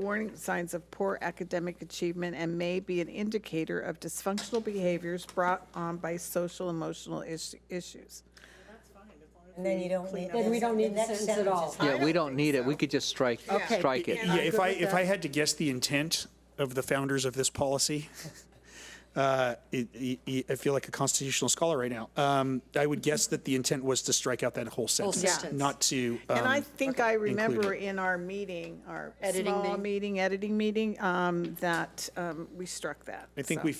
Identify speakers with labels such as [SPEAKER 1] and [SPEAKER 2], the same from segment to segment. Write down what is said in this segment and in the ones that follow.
[SPEAKER 1] warning signs of poor academic achievement and may be an indicator of dysfunctional behaviors brought on by social emotional is- issues.
[SPEAKER 2] And then you don't need.
[SPEAKER 3] Then we don't need the
[SPEAKER 2] next
[SPEAKER 3] sentence at all.
[SPEAKER 1] I
[SPEAKER 4] Yeah, we
[SPEAKER 1] don't
[SPEAKER 4] don't need
[SPEAKER 1] think
[SPEAKER 4] it. We
[SPEAKER 1] so.
[SPEAKER 4] could just strike,
[SPEAKER 1] Okay.
[SPEAKER 4] strike it.
[SPEAKER 1] Yeah.
[SPEAKER 5] Yeah, if
[SPEAKER 1] good
[SPEAKER 5] I,
[SPEAKER 1] with
[SPEAKER 5] if
[SPEAKER 1] that.
[SPEAKER 5] I had to guess the intent of the founders of this policy, uh, it- it- I feel like a constitutional scholar right now. Um, I would guess that the intent was to strike out that whole sentence,
[SPEAKER 1] sentence.
[SPEAKER 5] not to.
[SPEAKER 1] And I
[SPEAKER 5] um,
[SPEAKER 1] think I remember
[SPEAKER 5] it.
[SPEAKER 1] in our meeting, our
[SPEAKER 3] Editing
[SPEAKER 1] small
[SPEAKER 3] meeting.
[SPEAKER 1] meeting, editing meeting, um, that um, we struck that.
[SPEAKER 5] I think
[SPEAKER 1] so.
[SPEAKER 5] we,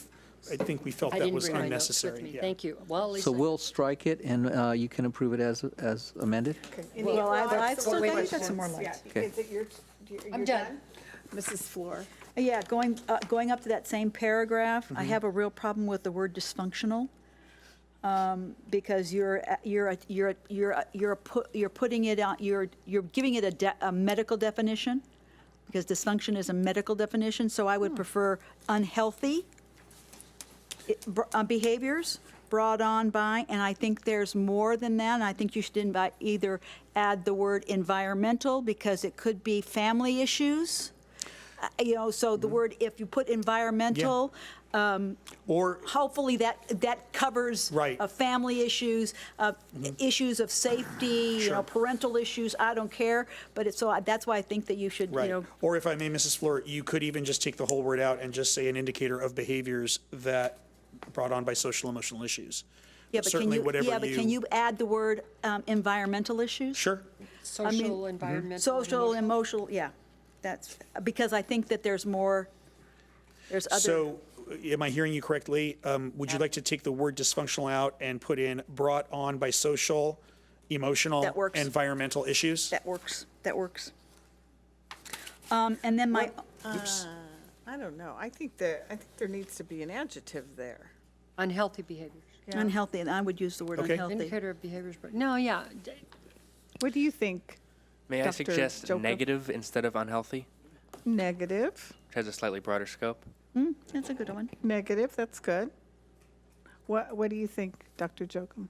[SPEAKER 5] I think we felt
[SPEAKER 3] I
[SPEAKER 5] that
[SPEAKER 3] didn't
[SPEAKER 5] was
[SPEAKER 3] bring my notes with
[SPEAKER 5] unnecessary.
[SPEAKER 3] me.
[SPEAKER 5] yeah.
[SPEAKER 3] Thank you. Well, at least.
[SPEAKER 4] So
[SPEAKER 3] I-
[SPEAKER 4] we'll strike it and uh, you can approve it as, as amended?
[SPEAKER 1] Any
[SPEAKER 2] Well, I-
[SPEAKER 1] thoughts
[SPEAKER 2] I'd
[SPEAKER 1] or
[SPEAKER 2] still wait for
[SPEAKER 1] questions?
[SPEAKER 2] some more
[SPEAKER 1] Yeah,
[SPEAKER 2] lights.
[SPEAKER 4] Okay.
[SPEAKER 1] Is it your, you're you're
[SPEAKER 3] I'm
[SPEAKER 1] done?
[SPEAKER 3] done.
[SPEAKER 1] Mrs. Fleur?
[SPEAKER 6] Yeah, going, uh, going up to that same paragraph, I have a real problem with the word dysfunctional. um, Because you're, a- you're, a- you're, a- you're, a- you're, pu- you're putting it out, you're, you're giving it a, de- a medical definition. Because dysfunction is a medical definition, so I would prefer unhealthy it- br- uh, behaviors brought on by, and I think there's more than that, and I think you should invite, either add the word environmental, because it could be family issues. Uh, You know, so the word, if you put environmental, um,
[SPEAKER 5] Or,
[SPEAKER 6] hopefully that, that covers.
[SPEAKER 5] Right. Mm-hmm.
[SPEAKER 6] uh, Family issues, uh, issues of safety, you know,
[SPEAKER 5] Sure.
[SPEAKER 6] parental issues, I don't care, but it's, so I- that's why I think that you should, you
[SPEAKER 5] right,
[SPEAKER 6] know.
[SPEAKER 5] or if I may, Mrs. Fleur, you could even just take the whole word out and just say an indicator of behaviors that brought on by social emotional issues.
[SPEAKER 6] Yeah, but can
[SPEAKER 5] Certainly,
[SPEAKER 6] you,
[SPEAKER 5] whatever
[SPEAKER 6] yeah, but can you add the word um, environmental issues? mm-hmm.
[SPEAKER 5] Sure,
[SPEAKER 3] Social,
[SPEAKER 4] mm-hmm.
[SPEAKER 3] environmental. and
[SPEAKER 6] Social,
[SPEAKER 3] emotional.
[SPEAKER 6] emotional, yeah, that's, because I think that there's more, there's other,
[SPEAKER 5] So, uh, am I hearing you correctly? Um, Would you like to take the word dysfunctional out and put in brought on by social, emotional,
[SPEAKER 6] That works.
[SPEAKER 5] environmental issues?
[SPEAKER 6] that works, that works. Um, And then my,
[SPEAKER 5] Oops.
[SPEAKER 1] I don't know. I think that, I think there needs to be an adjective there.
[SPEAKER 3] Unhealthy behaviors.
[SPEAKER 6] unhealthy, and I would use the word
[SPEAKER 5] Okay.
[SPEAKER 6] unhealthy.
[SPEAKER 3] Indicator of behaviors, but, no, yeah. d-
[SPEAKER 1] What do you think?
[SPEAKER 7] May I
[SPEAKER 1] Dr.
[SPEAKER 7] suggest
[SPEAKER 1] Joker?
[SPEAKER 7] negative instead of unhealthy,
[SPEAKER 1] Negative,
[SPEAKER 7] which has a slightly broader scope?
[SPEAKER 6] That's a good one.
[SPEAKER 1] negative, that's good. What, what do you think, Dr. Jokum?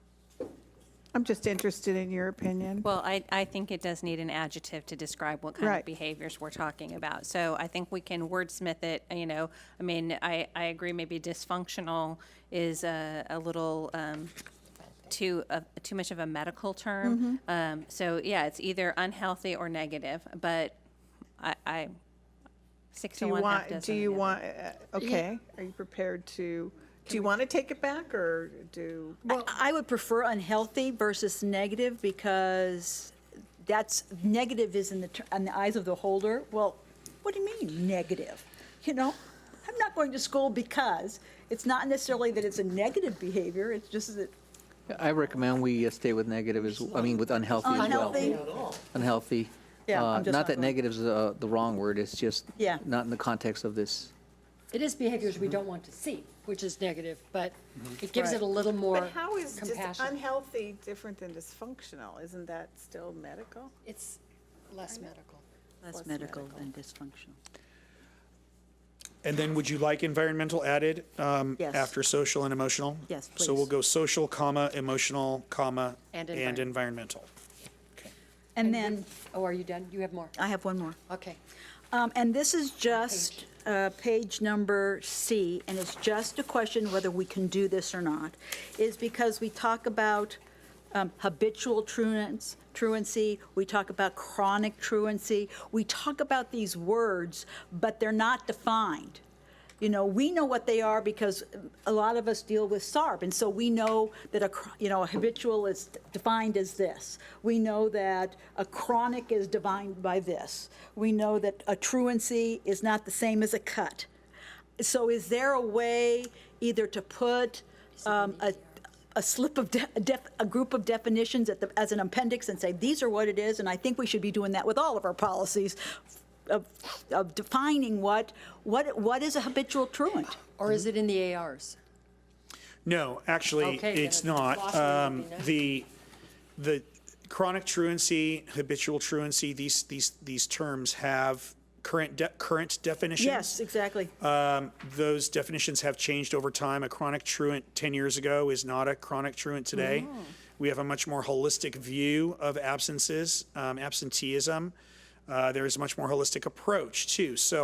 [SPEAKER 1] I'm just interested in your opinion.
[SPEAKER 8] Well, I, I think it does need an adjective to describe what kind
[SPEAKER 1] Mm-hmm. Right.
[SPEAKER 8] of behaviors we're talking about. So I think we can wordsmith it, you know, I mean, I, I agree maybe dysfunctional is a, a little, um, too, uh, too much of a medical
[SPEAKER 1] Mm-hmm.
[SPEAKER 8] term. Um, so yeah, it's either unhealthy or negative, but I, I, six
[SPEAKER 1] Do
[SPEAKER 8] to
[SPEAKER 1] you
[SPEAKER 8] one, half
[SPEAKER 1] want,
[SPEAKER 8] dozen.
[SPEAKER 1] do
[SPEAKER 8] of
[SPEAKER 1] you
[SPEAKER 8] the other.
[SPEAKER 1] want, uh, okay, are you prepared to, do you want to take it back or do?
[SPEAKER 6] I- I would prefer unhealthy versus negative, because that's, negative is in the, ter- in the eyes of the holder, well, what do you mean, negative? You know, I'm not going to school because, it's not necessarily that it's a negative behavior, it's just that
[SPEAKER 4] I recommend we uh, stay with negative as, I mean, with unhealthy as well.
[SPEAKER 6] unhealthy.
[SPEAKER 4] Unhealthy.
[SPEAKER 6] Yeah,
[SPEAKER 4] Uh,
[SPEAKER 6] I'm just
[SPEAKER 4] Not
[SPEAKER 6] not
[SPEAKER 4] that
[SPEAKER 6] going-
[SPEAKER 4] negative's uh, the wrong word, it's just
[SPEAKER 6] Yeah.
[SPEAKER 4] not in the context of this.
[SPEAKER 3] It is behaviors we don't want to see, which is negative, but it gives it a little more
[SPEAKER 1] But how is dis-
[SPEAKER 3] compassion.
[SPEAKER 1] unhealthy different than dysfunctional? Isn't that still medical?
[SPEAKER 3] It's less medical.
[SPEAKER 6] Less medical than dysfunctional.
[SPEAKER 5] And then would you like environmental added um,
[SPEAKER 6] Yes.
[SPEAKER 5] after social and emotional?
[SPEAKER 6] Yes,
[SPEAKER 5] So we'll
[SPEAKER 6] please.
[SPEAKER 5] go social, comma, emotional, comma,
[SPEAKER 3] And
[SPEAKER 5] and environmental.
[SPEAKER 6] And then,
[SPEAKER 3] we- Oh, are you done? You have more?
[SPEAKER 6] I have one more.
[SPEAKER 3] Okay.
[SPEAKER 6] Um, And this is just uh, page number C, and it's just a question whether we can do this or not, is because we talk about um, habitual truants- truancy, we talk about chronic truancy, we talk about these words, but they're not defined. You know, we know what they are because a lot of us deal with SARB, and so we know that a, cr- you know, a habitual is defined as this. We know that a chronic is defined by this. We know that a truancy is not the same as a cut. So is there a way either to put um, a, a slip of, de- a def- a group of definitions at the, as an appendix and say, these are what it is, and I think we should be doing that with all of our policies, of, of defining what, what, what is a habitual truant?
[SPEAKER 3] Or is it in the ARs?
[SPEAKER 5] No, actually,
[SPEAKER 3] Okay, then
[SPEAKER 5] it's
[SPEAKER 3] it's
[SPEAKER 5] not.
[SPEAKER 3] glossary would
[SPEAKER 5] Um,
[SPEAKER 3] be nice.
[SPEAKER 5] The, the chronic truancy, habitual truancy, these, these, these terms have current, de- current definitions.
[SPEAKER 6] Yes, exactly.
[SPEAKER 5] those definitions have changed over time. A chronic truant 10 years ago is not a chronic truant today. We have a much more holistic view of absences, um, absenteeism. Uh, there is a much more holistic approach too. So